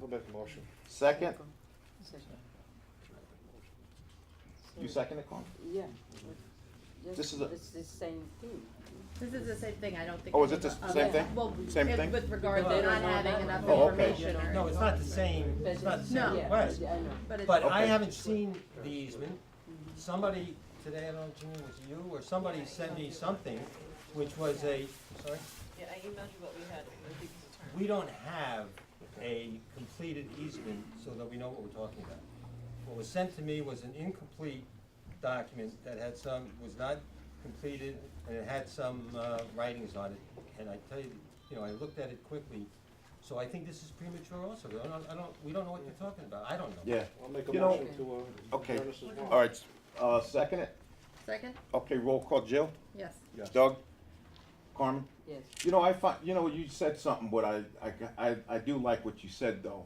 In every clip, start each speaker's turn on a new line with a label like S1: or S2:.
S1: I'll make a motion.
S2: Second,
S3: Second.
S2: you second it, Carmen?
S3: Yeah.
S2: This is a-
S3: It's the same thing.
S4: This is the same thing, I don't think.
S2: Oh, is it the s-
S4: Uh,
S2: same
S3: thing?
S4: Well,
S2: Same
S4: it-
S2: thing?
S4: with regard
S5: No,
S4: to
S5: they
S4: not
S3: don't know
S4: having
S3: that.
S4: enough
S2: Oh, okay.
S4: information or.
S5: No, it's not the same,
S3: But
S5: it's not the same
S4: No.
S5: request,
S3: Yeah, I know.
S4: But it's,
S5: but I
S2: Okay.
S5: haven't seen the easement. Somebody, today, I don't know, Jimmy, was it you, or somebody sent me something, which was a, sorry?
S6: Yeah, I emailed you what we had, I think it's a term.
S5: We don't have a completed easement so that we know what we're talking about. What was sent to me was an incomplete document that had some, was not completed, and it had some uh, writings on it. And I tell you, you know, I looked at it quickly, so I think this is premature also. I don't, I don't, we don't know what you're talking about. I don't know.
S2: Yeah,
S1: I'll make a
S2: You know-
S1: motion to, uh,
S2: Okay.
S1: adjourn this as well.
S2: all right, uh, second it,
S4: Second?
S2: okay, roll call, Jill?
S4: Yes.
S1: Yes.
S2: Doug? Carmen?
S3: Yes.
S2: You know, I find, you know, you said something, but I, I, I, I do like what you said though.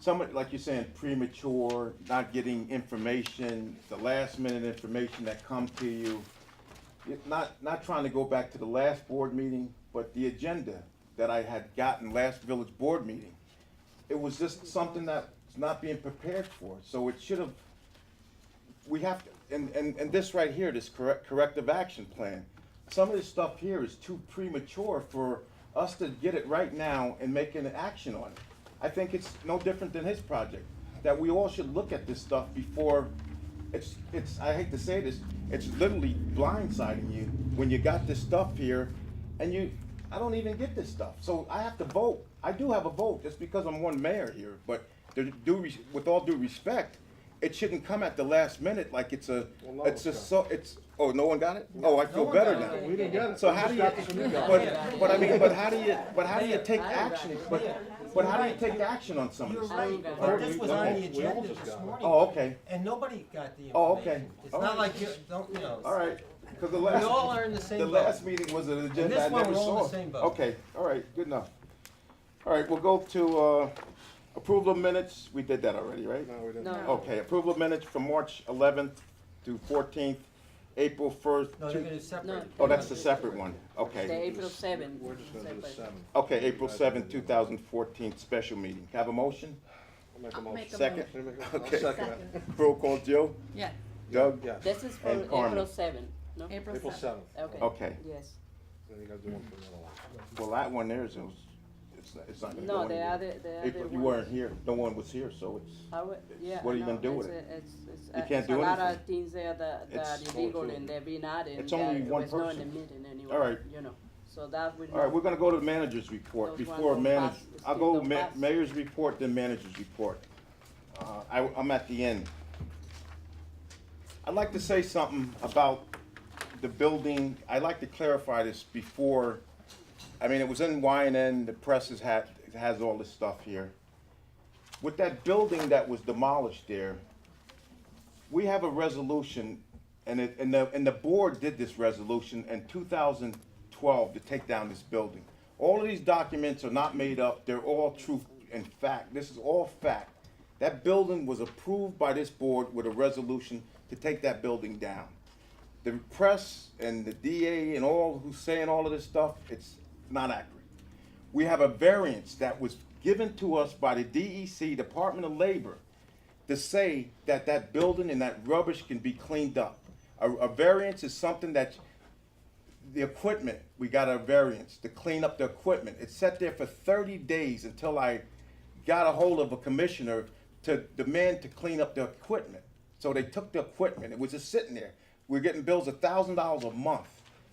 S2: Somebody, like you're saying, premature, not getting information, the last minute information that comes to you. It- Not, not trying to go back to the last board meeting, but the agenda that I had gotten last village board meeting. It was just something that's not being prepared for, so it should have we have, to- and, and, and this right here, this correct, corrective action plan, some of this stuff here is too premature for us to get it right now and make an action on it. I think it's no different than his project, that we all should look at this stuff before, it's, it's, I hate to say this, it's literally blindsiding you when you got this stuff here and you, I don't even get this stuff, so I have to vote. I do have a vote, just because I'm one mayor here, but there- due, res- with all due respect, it shouldn't come at the last minute like it's a,
S1: Well, no
S2: it's
S1: one
S2: just so, it's, oh, no one got it? Oh, I
S5: No
S2: feel
S5: one
S2: better
S5: got
S2: now.
S5: it.
S1: We didn't get it.
S2: So
S1: We
S2: how
S1: just
S2: do you,
S1: got this from you guys.
S2: but, but I mean, but how do you, but how do you take
S3: I got
S2: action,
S3: it.
S2: but, but how do you take action on some
S5: You're
S2: of this?
S5: right,
S3: I-
S5: but this was on the
S1: We all
S5: agenda
S1: just
S5: this
S1: got it.
S5: morning.
S2: Oh, okay,
S5: And nobody got the information.
S2: Oh, okay.
S5: It's
S2: All
S5: not
S2: right.
S5: like you, don't, you know.
S2: all right, because the
S5: We all
S2: last,
S5: are in the same
S2: the
S5: boat.
S2: last meeting was an agenda
S5: this
S2: I
S5: one,
S2: never
S5: we're all in
S2: saw.
S5: the same boat.
S2: Okay, all right, good enough. All right, we'll go to, uh, approval of minutes, we did that already, right?
S1: No, we didn't.
S3: No.
S2: Okay, approval of minutes from March eleventh to fourteenth, April first.
S5: No, they're gonna separate.
S3: No.
S5: it.
S2: Oh, that's the separate one,
S3: The
S2: okay.
S3: April seventh.
S1: We're just gonna do the seven.
S2: Okay, April seventh, two thousand fourteen, special meeting. Have a motion?
S1: I'll make a
S4: I'll make
S1: motion.
S4: a
S2: Second.
S4: motion.
S1: Can you make a- I'll
S2: Okay.
S1: second that.
S2: Roll call, Jill?
S4: Yeah,
S2: Doug?
S1: Yes.
S3: This is for
S2: And Carmen.
S3: April seventh, no?
S4: April
S1: April
S4: seventh.
S1: seventh.
S3: Okay.
S2: Okay,
S3: Yes.
S1: Then you gotta do one for the other one.
S2: well, that one there is, it's, it's not gonna go
S3: No, the
S2: anywhere.
S3: other, the other
S2: April,
S3: one.
S2: you weren't here, no one was here, so it's,
S3: I would, yeah.
S2: what are you
S3: I
S2: gonna
S3: know.
S2: do with
S3: It's
S2: it?
S3: a- It's, it's,
S2: You
S3: uh,
S2: can't
S3: it's a
S2: do
S3: lot of
S2: anything.
S3: things there that, that
S2: It's
S3: are illegal
S2: all
S3: and they be not in.
S2: It's only
S3: that
S2: one
S3: was not in
S2: person.
S3: the meeting anyway.
S2: All right.
S3: You know, so that would.
S2: all right,
S3: not-
S2: we're gonna go to the manager's report
S3: Those ones
S2: before
S3: don't
S2: manage,
S3: pass.
S2: I'll go
S3: Those don't
S2: ma-
S3: pass.
S2: mayor's report, then manager's report. Uh, I, I'm at the end. I'd like to say something about the building, I'd like to clarify this before, I mean, it was in Y and N, the press has had, has all this stuff here. With that building that was demolished there, we have a resolution, and it, and the, and the board did this resolution in two thousand twelve to take down this building. All of these documents are not made up, they're all truth and fact, this is all fact. That building was approved by this board with a resolution to take that building down the press and the DA and all who's saying all of this stuff, it's not accurate. We have a variance that was given to us by the DEC, Department of Labor, to say that that building and that rubbish can be cleaned up. A, a variance is something that, the equipment, we got a variance to clean up the equipment. It sat there for thirty days until I got a hold of a commissioner to demand to clean up the equipment. So they took the equipment, it was just sitting there. We're getting bills a thousand dollars a month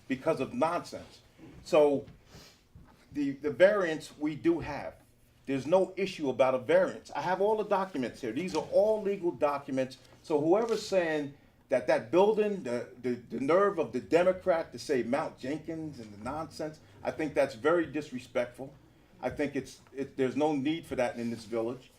S2: because of nonsense. So the, the variance we do have. There's no issue about a variance. I have all the documents here. These are all legal documents. So whoever's saying that that building, the, the, the nerve of the Democrat to say Mount Jenkins and the nonsense, I think that's very disrespectful. I think it's, it, there's no need for that in this village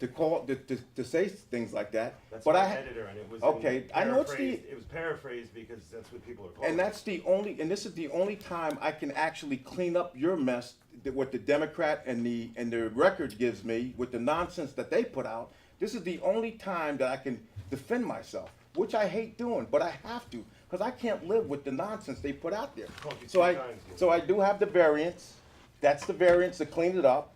S2: to call, to, to, to say things like that.
S7: That's
S2: But
S7: my
S2: I ha-
S7: editor, and it was
S2: Okay,
S7: in
S2: I know it's the-
S7: paraphrased- It was paraphrased because that's what people are calling.
S2: And
S7: it.
S2: that's the only, and this is the only time I can actually clean up your mess, that what the Democrat and the, and the record gives me with the nonsense that they put out. This is the only time that I can defend myself, which I hate doing, but I have to, because I can't live with the nonsense they put out there.
S7: Called you
S2: So
S7: two
S2: I,
S7: times, Gil.
S2: so I do have the variance, that's the variance to clean it up.